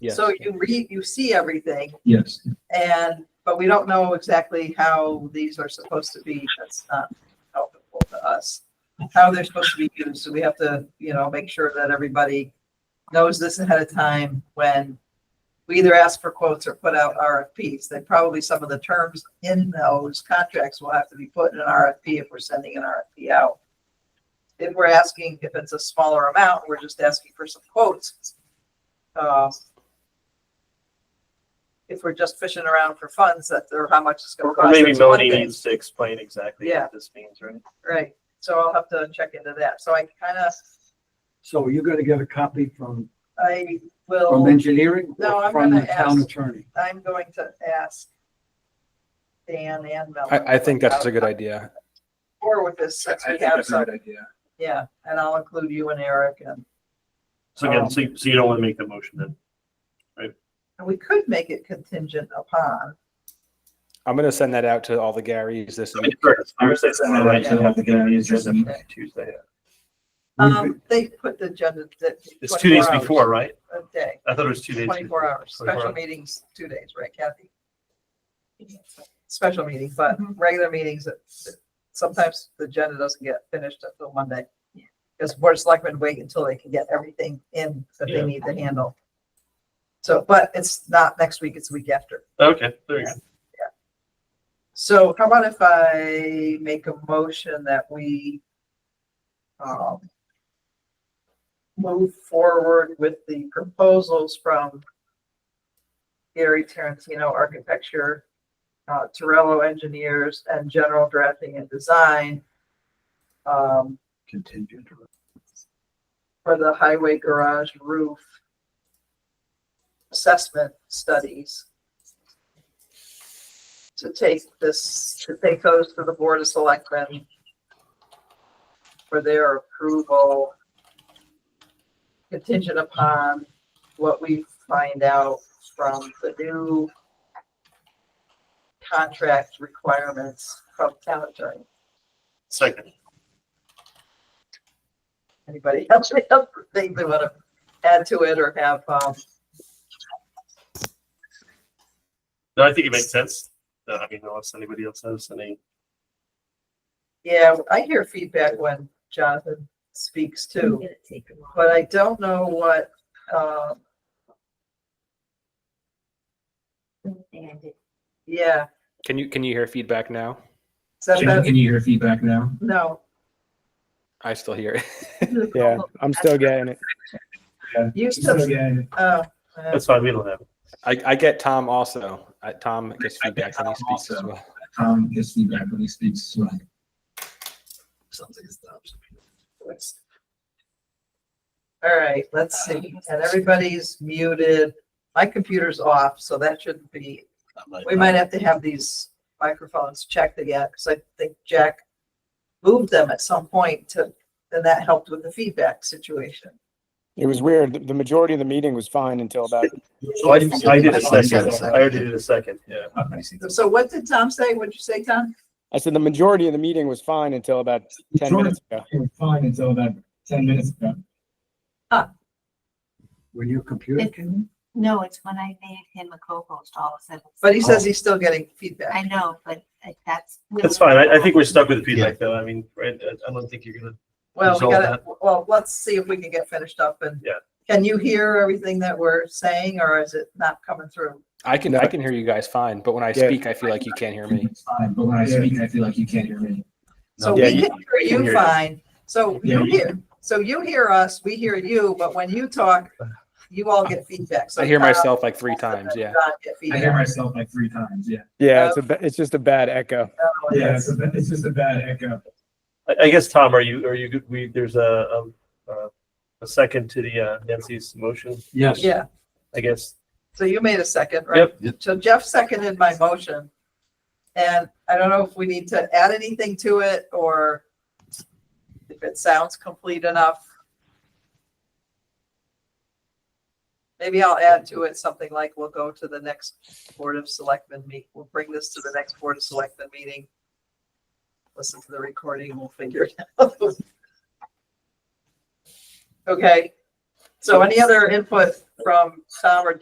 Yes. So you read, you see everything Yes. and, but we don't know exactly how these are supposed to be. That's not helpful to us. How they're supposed to be used. So we have to, you know, make sure that everybody knows this ahead of time when we either ask for quotes or put out RFPs. Then probably some of the terms in those contracts will have to be put in an RFP if we're sending an RFP out. If we're asking, if it's a smaller amount, we're just asking for some quotes. Uh, if we're just fishing around for funds, that, or how much it's gonna Or cost. maybe that's one Melanie thing. needs to explain exactly Yeah. what this means, right? Right, so I'll have to check into that. So I kind of, So you're gonna get a copy from, I from will, engineering? or No, I'm From gonna the town ask. attorney? I'm going to ask Dan and Mel. I, I think that's a good idea. Or with this, since we have some, yeah, and I'll include you and Eric and, So again, Um, so, so you don't want to make the motion then? and we could make it contingent upon. I'm gonna send that out to all the Garys this I week. mean, first, I'm just saying that right, Yeah. you have to get it, it's just a meeting Tuesday. Um, they put the agenda that. It's two days 24 hours before, right? A day, I thought it was two days. twenty-four hours, 24 special meetings, two days, right Kathy? Special meetings, but regular meetings, that that sometimes the agenda doesn't get finished until Monday. Because board of selectmen wait until they can get everything in that they Yeah. need to handle. So, but it's not next week, it's the week after. Okay, there you go. So how about if I make a motion that we um, move forward with the proposals from Gary Tarantino Architecture, uh, Torello Engineers, and General Drafting and Design um, Contingent. for the highway garage roof assessment studies. To take this, to take those to the Board of Selectmen for their approval contingent upon what we find out from the new contract requirements from town attorney. Second. Anybody else they have- they they want to add to it or have, um, No, I think it makes sense. Uh, I mean, unless anybody else has any, Yeah, I hear feedback when Jonathan speaks too, but I don't know what, uh, yeah. Can you, can you hear feedback now? Is that better? you hear feedback now? No. I still hear it. Yeah, I'm still getting it. Used to, oh, uh, that's fine, we don't have. it. I, I get Tom also. I, Tom gets feedback when he speaks as well. Tom gets Um, feedback when he speaks as well. Sounds like it stops. all right, let's see. And everybody's muted. My computer's off, so that shouldn't be, we might have to have these microphones checked again, because I think Jack moved them at some point to, and that helped with the feedback situation. It was weird. The- The majority of the meeting was fine until about So I did, I did a I said a second. I second. already did a second, yeah. So what did Tom say? What'd you say, Tom? I said the majority of the meeting was fine until about ten minutes ago. We're Fine until about ten minutes ago. Ah. When your computer It- came in? No, it's when I made him a co-host all of a sudden. But he says he's still getting I feedback. know, but I- that's. That's fine. I, I think we're stuck with the feedback though. I mean, right, I- I don't think you're gonna, Well, we Resolve gotta, well, let's see if we can get finished up and. Yeah. Can you hear everything that we're saying or is it not coming through? I can, I can hear you guys fine, but when I Yeah. speak, I feel like you can't hear me. It's fine, but when I Yeah. speak, I feel like you can't hear me. So Yeah, we you- can hear can hear you us. fine. So you Yeah. hear, so you hear us, we hear you, but when you talk, you all get feedback. So I hear Tom, myself like three Melissa, times, yeah. John get I hear feedback. myself like three times, yeah. Yeah, it's a ba- it's just a bad echo. Oh, Yeah, yes. it's, a ba- it's just a bad echo. I, I guess, Tom, are you, are you, good? we, there's a, um, uh, a second to the uh, Nancy's motion, Yes. Yeah, I guess. so you made a second, right? So Jeff seconded my motion. And I don't know if we need to add anything to it or if it sounds complete enough. Maybe I'll add to it something like we'll go to the next Board of Selectmen meet. We'll bring this to the next Board of Selectmen meeting. Listen to the recording, we'll figure it out. Okay, so any other input from Tom or